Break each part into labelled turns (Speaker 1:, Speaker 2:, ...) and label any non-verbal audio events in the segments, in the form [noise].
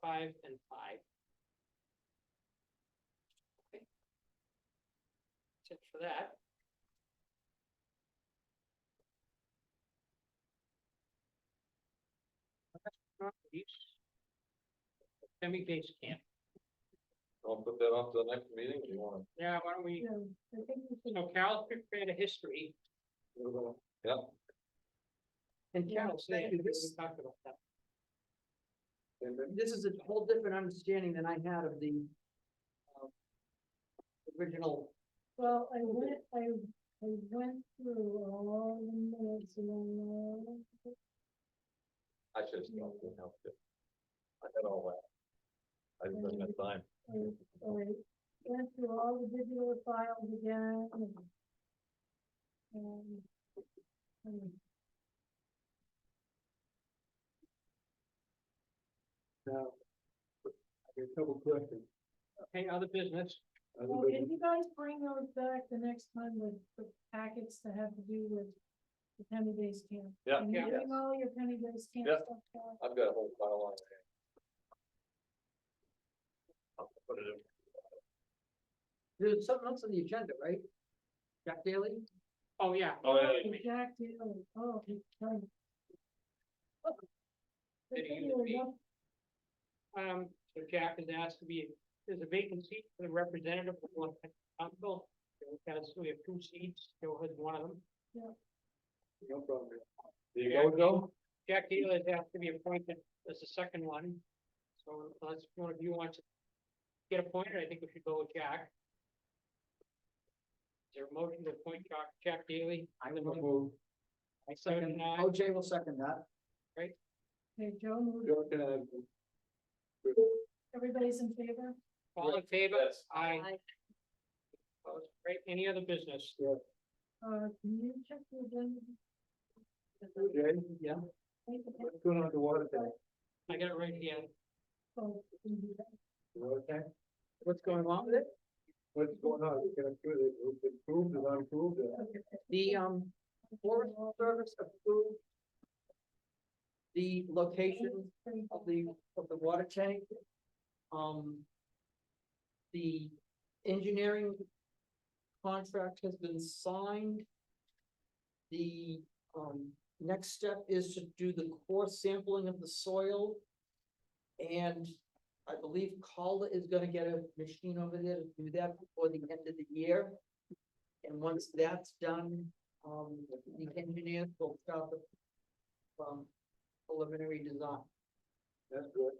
Speaker 1: five, and five. Okay. That's it for that. Last but not least, Semi base camp.
Speaker 2: I'll put that off to the next meeting if you want.
Speaker 1: Yeah, why don't we, so Carol prepared a history
Speaker 2: Yeah,
Speaker 1: and
Speaker 3: Yeah,
Speaker 1: Carol's
Speaker 3: thank
Speaker 1: there.
Speaker 3: you.
Speaker 1: We
Speaker 3: This-
Speaker 1: talked about that.
Speaker 3: This is a whole different understanding than I had of the um, original,
Speaker 4: Well, I went, I, I went through all the minutes and all,
Speaker 2: I should have stopped and helped it. I had all that. I just didn't have time.
Speaker 4: I went through all the digital files again. And. and
Speaker 1: Okay, other business.
Speaker 4: Well, can you guys bring those back the next time with the packets that have to do with the penny based camp?
Speaker 2: Yeah,
Speaker 4: Can you
Speaker 1: yeah.
Speaker 4: bring all your penny based camp
Speaker 2: Yeah.
Speaker 4: stuff back?
Speaker 2: I've got a whole pile on hand. I'll put it in.
Speaker 3: there's something else on the agenda, right? Jack Daly?
Speaker 1: Oh, yeah.
Speaker 2: Oh, yeah,
Speaker 4: Oh, Jack Daly, oh, he's trying.
Speaker 1: Did he use the- Um, so Jack has asked to be, there's a vacant seat for the representative of North Council. So we have two seats, Joe has one of them.
Speaker 2: No problem. There you go, Joe.
Speaker 1: Jack Deal has asked to be appointed as the second one. So unless one of you wants to get appointed, I think we should go with Jack. Is there a motion to appoint Jack, Jack Daly?
Speaker 3: I will move.
Speaker 1: I
Speaker 3: Second, OJ will second that.
Speaker 4: Okay, Joe, moved. everybody's in favor?
Speaker 1: All in favor?
Speaker 2: Yes.
Speaker 1: Aye. Opposed? Great. Any other business?
Speaker 4: Uh, can you check the agenda?
Speaker 3: Yeah.
Speaker 4: Make the
Speaker 3: What's going on the water
Speaker 4: tank?
Speaker 1: I got it right here.
Speaker 4: people Oh, can do that.
Speaker 3: What's going on with it?
Speaker 5: What's going on? You can approve it, It's approved and unapproved.
Speaker 3: The, um, Forest Service approved the location of the, of the water tank. Um. The engineering contract has been signed. The, um, next step is to do the core sampling of the soil. And I believe Calder is gonna get a machine over there to do that before the end of the year. And once that's done, um, the engineers will start the, um, preliminary design.
Speaker 5: That's good.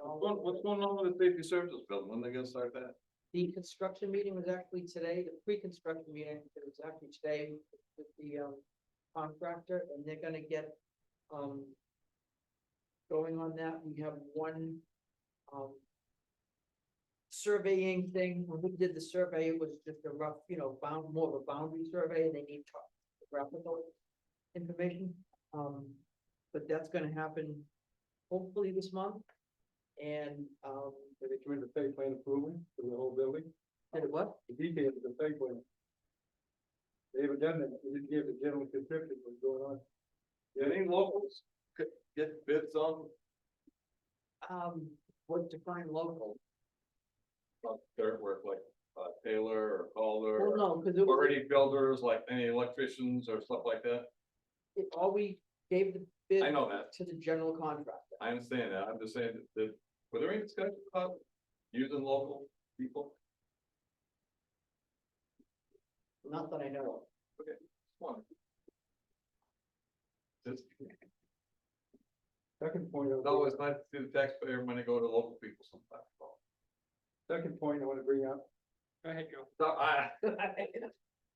Speaker 3: All
Speaker 2: What, what's going on with the safety services building? When they gonna start that?
Speaker 3: The construction meeting was actually today, the pre-construction meeting, it was actually today with the um contractor, and they're gonna get um. Going on that, we have one um. Surveying thing, when we did the survey, it was just a rough, you know, bound, more of a boundary survey, and they need topographical information. Um, but that's gonna happen hopefully this month. And um,
Speaker 5: They determined the site plan approval for the whole building,
Speaker 3: did it what?
Speaker 5: the details of the site plan. They haven't done that, they didn't give the general description of what's going on.
Speaker 2: Yeah, Any locals could get bids on,
Speaker 3: um, was defined local.
Speaker 2: on dirt work like uh, Taylor or Calder?
Speaker 3: Well,
Speaker 2: or-
Speaker 3: no, because it was,
Speaker 2: already builders, like any electricians or stuff like that?
Speaker 3: it, all we gave the bid
Speaker 2: I know that,
Speaker 3: to the general contractor.
Speaker 2: I understand that, I'm just saying that- that, were there any discussion about using local people?
Speaker 3: Not that I know of.
Speaker 2: Come on. Just,
Speaker 5: Second point, I
Speaker 2: it's always nice to see the taxpayer money go to local people sometimes.
Speaker 5: second point I wanna bring up,
Speaker 1: Go ahead, Joe.
Speaker 2: So, I-
Speaker 3: [laughs]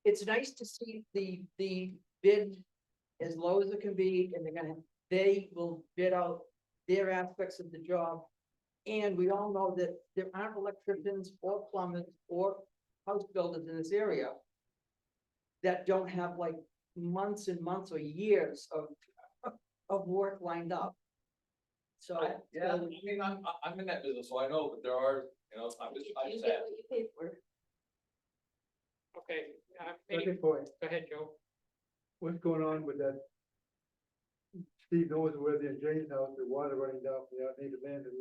Speaker 3: It's nice to see the, the bid as low as it can be, and they're gonna, they will bid out their aspects of the job. And we all know that there aren't electricians or plumbers or house builders in this area that don't have like months and months or years of, of work lined up. So.
Speaker 2: I- Yeah, I mean, I'm, I- I'm in that business, so I know, but there are, you know, I'm just, I'm sad.
Speaker 1: Okay, uh, any-
Speaker 5: second point,
Speaker 1: go ahead, Joe.
Speaker 5: what's going on with that? Steve knows where the Jane's house, the water running down, from the outdated land, and